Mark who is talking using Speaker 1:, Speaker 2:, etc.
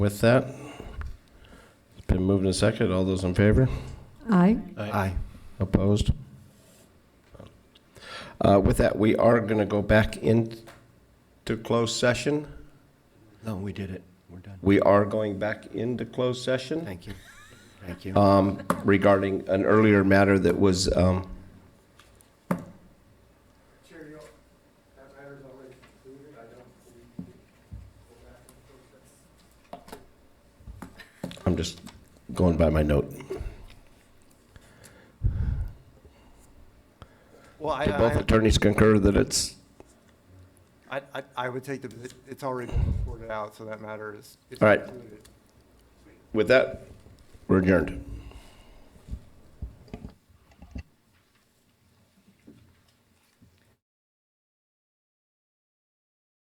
Speaker 1: With that, it's been moved and second. All those in favor?
Speaker 2: Aye.
Speaker 3: Aye.
Speaker 1: Opposed? Uh, With that, we are going to go back into closed session.
Speaker 3: No, we did it. We're done.
Speaker 1: We are going back into closed session
Speaker 3: Thank you. Thank you.
Speaker 1: um, regarding an earlier matter that was, um, I'm just going by my note.
Speaker 4: Well, I,
Speaker 1: Do both
Speaker 4: I,
Speaker 1: attorneys concur that it's,
Speaker 4: I, I- I would take the, it's already been reported out, so that matter is. is
Speaker 1: All right.
Speaker 4: concluded.
Speaker 1: with that, we're adjourned.